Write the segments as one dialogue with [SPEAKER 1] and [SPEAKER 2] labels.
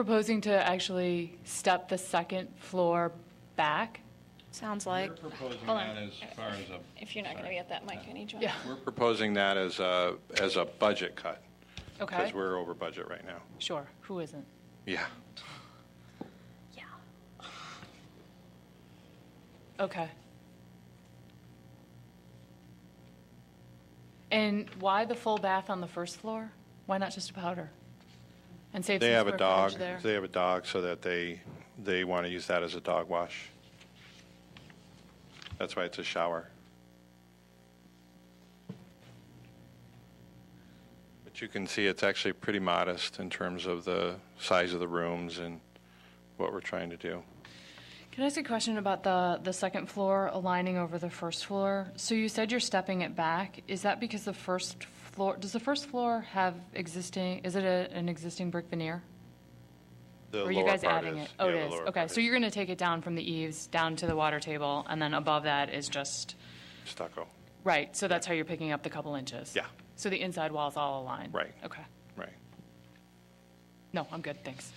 [SPEAKER 1] proposing to actually step the second floor back?
[SPEAKER 2] Sounds like.
[SPEAKER 3] We're proposing
[SPEAKER 4] Hold on.
[SPEAKER 3] that as far as a.
[SPEAKER 4] If you're not going to be at that mic, I need you. on.
[SPEAKER 1] Yeah,
[SPEAKER 3] We're proposing that as a, as a budget cut,
[SPEAKER 1] okay,
[SPEAKER 3] because we're over budget right now.
[SPEAKER 1] sure, who isn't?
[SPEAKER 3] Yeah.
[SPEAKER 1] Okay. And why the full bath on the first floor? Why not just a powder? And save some
[SPEAKER 3] They have a
[SPEAKER 1] square
[SPEAKER 3] dog,
[SPEAKER 1] footage there?
[SPEAKER 3] they have a dog, so that they, they want to use that as a dog wash. That's why it's a shower. But you can see it's actually pretty modest in terms of the size of the rooms and what we're trying to do.
[SPEAKER 1] Can I ask a question about the, the second floor aligning over the first floor? So you said you're stepping it back. Is that because the first floor, does the first floor have existing, is it a, an existing brick veneer?
[SPEAKER 3] The
[SPEAKER 1] Or are you
[SPEAKER 3] lower
[SPEAKER 1] guys
[SPEAKER 3] part
[SPEAKER 1] adding
[SPEAKER 3] is-
[SPEAKER 1] it? Oh,
[SPEAKER 3] yeah,
[SPEAKER 1] it
[SPEAKER 3] the
[SPEAKER 1] is.
[SPEAKER 3] lower
[SPEAKER 1] Okay,
[SPEAKER 3] part
[SPEAKER 1] so
[SPEAKER 3] is
[SPEAKER 1] you're going to take it down from the eaves, down to the water table, and then above that is just,
[SPEAKER 3] Stucco,
[SPEAKER 1] right, so that's how you're picking up the couple inches?
[SPEAKER 3] Yeah.
[SPEAKER 1] So the inside wall's all aligned?
[SPEAKER 3] Right.
[SPEAKER 1] Okay.
[SPEAKER 3] right.
[SPEAKER 1] No, I'm good, thanks.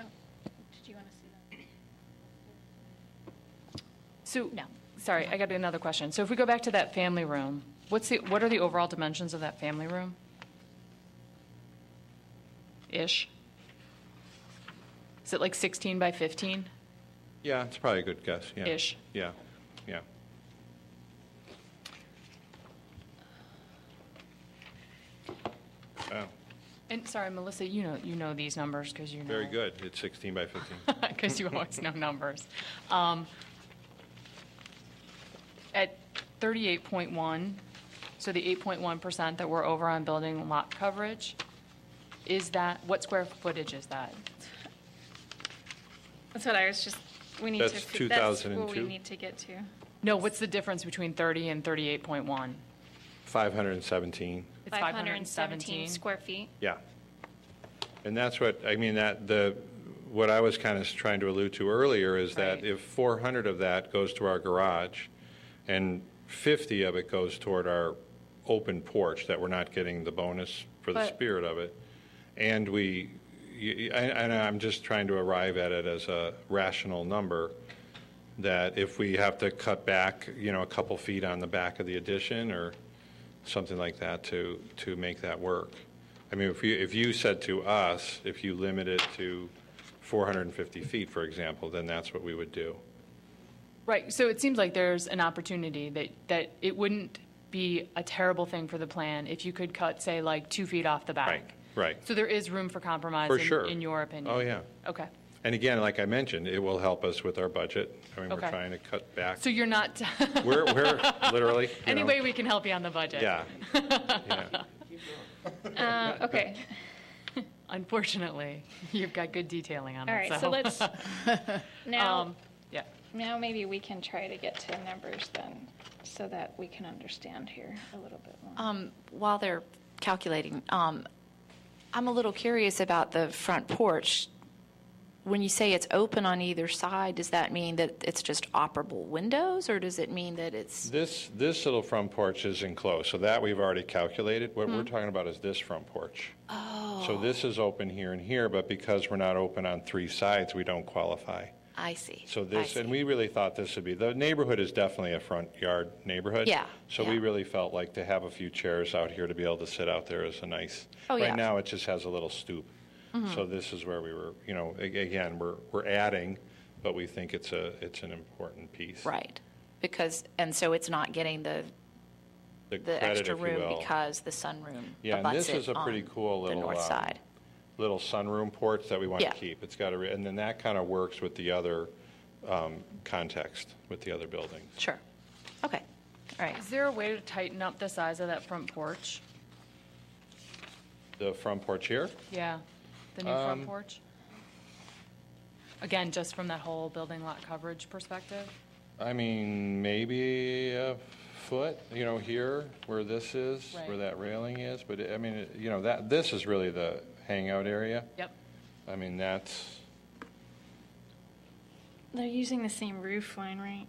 [SPEAKER 4] Oh, Did you want to see that?
[SPEAKER 1] So,
[SPEAKER 4] No.
[SPEAKER 1] sorry, I got another question. So if we go back to that family room, what's the, what are the overall dimensions of that family room? Ish? Is it like 16 by 15?
[SPEAKER 3] Yeah, it's probably a good guess, yeah.
[SPEAKER 1] Ish.
[SPEAKER 3] Yeah, yeah. Wow,
[SPEAKER 1] And, sorry, Melissa, you know, you know these numbers because you know.
[SPEAKER 3] very good. It's 16 by 15.
[SPEAKER 1] because you always know numbers. Um, At 38.1, so the 8.1% that we're over on building lot coverage, is that, what square footage is that?
[SPEAKER 4] That's what I was just, we need to.
[SPEAKER 3] That's
[SPEAKER 4] fi- that's what
[SPEAKER 3] 2002?
[SPEAKER 4] we need to get to.
[SPEAKER 1] No, what's the difference between 30 and 38.1?
[SPEAKER 3] 517,
[SPEAKER 1] It's 517.
[SPEAKER 4] Square feet.
[SPEAKER 3] yeah. And that's what, I mean, that, the, what I was kind of trying to allude to earlier is that
[SPEAKER 1] Right.
[SPEAKER 3] if 400 of that goes to our garage and 50 of it goes toward our open porch, that we're not getting the bonus for the
[SPEAKER 1] But-
[SPEAKER 3] spirit of it, and we, y- y- and and I'm just trying to arrive at it as a rational number, that if we have to cut back, you know, a couple feet on the back of the addition or something like that to, to make that work. I mean, if you, if you said to us, if you limit it to 450 feet, for example, then that's what we would do.
[SPEAKER 1] Right, so it seems like there's an opportunity that, that it wouldn't be a terrible thing for the plan if you could cut, say, like, two feet off the back.
[SPEAKER 3] Right, right.
[SPEAKER 1] So there is room for compromise.
[SPEAKER 3] For
[SPEAKER 1] in-
[SPEAKER 3] sure.
[SPEAKER 1] In your opinion?
[SPEAKER 3] Oh, yeah.
[SPEAKER 1] Okay.
[SPEAKER 3] And again, like I mentioned, it will help us with our budget. I mean, we're
[SPEAKER 1] Okay.
[SPEAKER 3] trying to cut back.
[SPEAKER 1] So you're not,
[SPEAKER 3] We're, we're literally, you
[SPEAKER 1] any
[SPEAKER 3] know,
[SPEAKER 1] way we can help you on the budget?
[SPEAKER 3] Yeah. yeah.
[SPEAKER 4] Uh, Okay,
[SPEAKER 1] Unfortunately, you've got good detailing on it.
[SPEAKER 4] all right, so let's, now,
[SPEAKER 1] Um, yeah.
[SPEAKER 4] now maybe we can try to get to numbers then, so that we can understand here a little bit more.
[SPEAKER 2] Um, While they're calculating, um, I'm a little curious about the front porch. When you say it's open on either side, does that mean that it's just operable windows, or does it mean that it's,
[SPEAKER 3] This, this little front porch is enclosed, so that we've already calculated. What we're talking about is this front porch. Oh. So this is open here and here, but because we're not open on three sides, we don't qualify.
[SPEAKER 2] I see.
[SPEAKER 3] So
[SPEAKER 2] I
[SPEAKER 3] this, and
[SPEAKER 2] see.
[SPEAKER 3] we really thought this would be, the neighborhood is definitely a front yard neighborhood.
[SPEAKER 2] Yeah,
[SPEAKER 3] So we
[SPEAKER 2] yeah.
[SPEAKER 3] really felt like to have a few chairs out here to be able to sit out there is a nice.
[SPEAKER 2] Oh, yeah. Mm-hmm.
[SPEAKER 3] Right now, it just has a little stoop. So this is where we were, you know, a- again, we're, we're adding, but we think it's a, it's an important piece.
[SPEAKER 2] Right, because, and so it's not getting the, the
[SPEAKER 3] credit,
[SPEAKER 2] extra
[SPEAKER 3] if you
[SPEAKER 2] room
[SPEAKER 3] will.
[SPEAKER 2] because the sunroom
[SPEAKER 3] Yeah, and
[SPEAKER 2] abuts
[SPEAKER 3] this is
[SPEAKER 2] it
[SPEAKER 3] a pretty
[SPEAKER 2] on
[SPEAKER 3] cool
[SPEAKER 2] the
[SPEAKER 3] little,
[SPEAKER 2] north
[SPEAKER 3] uh,
[SPEAKER 2] side.
[SPEAKER 3] little sunroom porch that we want to
[SPEAKER 2] Yeah.
[SPEAKER 3] keep. It's got a, re- and then that kind of works with the other um, context, with the other buildings.
[SPEAKER 2] Sure. Okay, all right.
[SPEAKER 1] Is there a way to tighten up the size of that front porch?
[SPEAKER 3] The front porch here?
[SPEAKER 1] Yeah, the new front
[SPEAKER 3] Um,
[SPEAKER 1] porch? Again, just from that whole building lot coverage perspective?
[SPEAKER 3] I mean, maybe a foot, you know, here, where this is, where
[SPEAKER 1] Right.
[SPEAKER 3] that railing is, but, I mean, it- you know, that, this is really the hangout area.
[SPEAKER 1] Yep.
[SPEAKER 3] I mean, that's,
[SPEAKER 4] They're using the same roof line, right?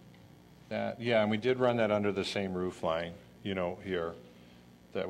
[SPEAKER 3] that, yeah, and we did run that under the same roof line, you know, here.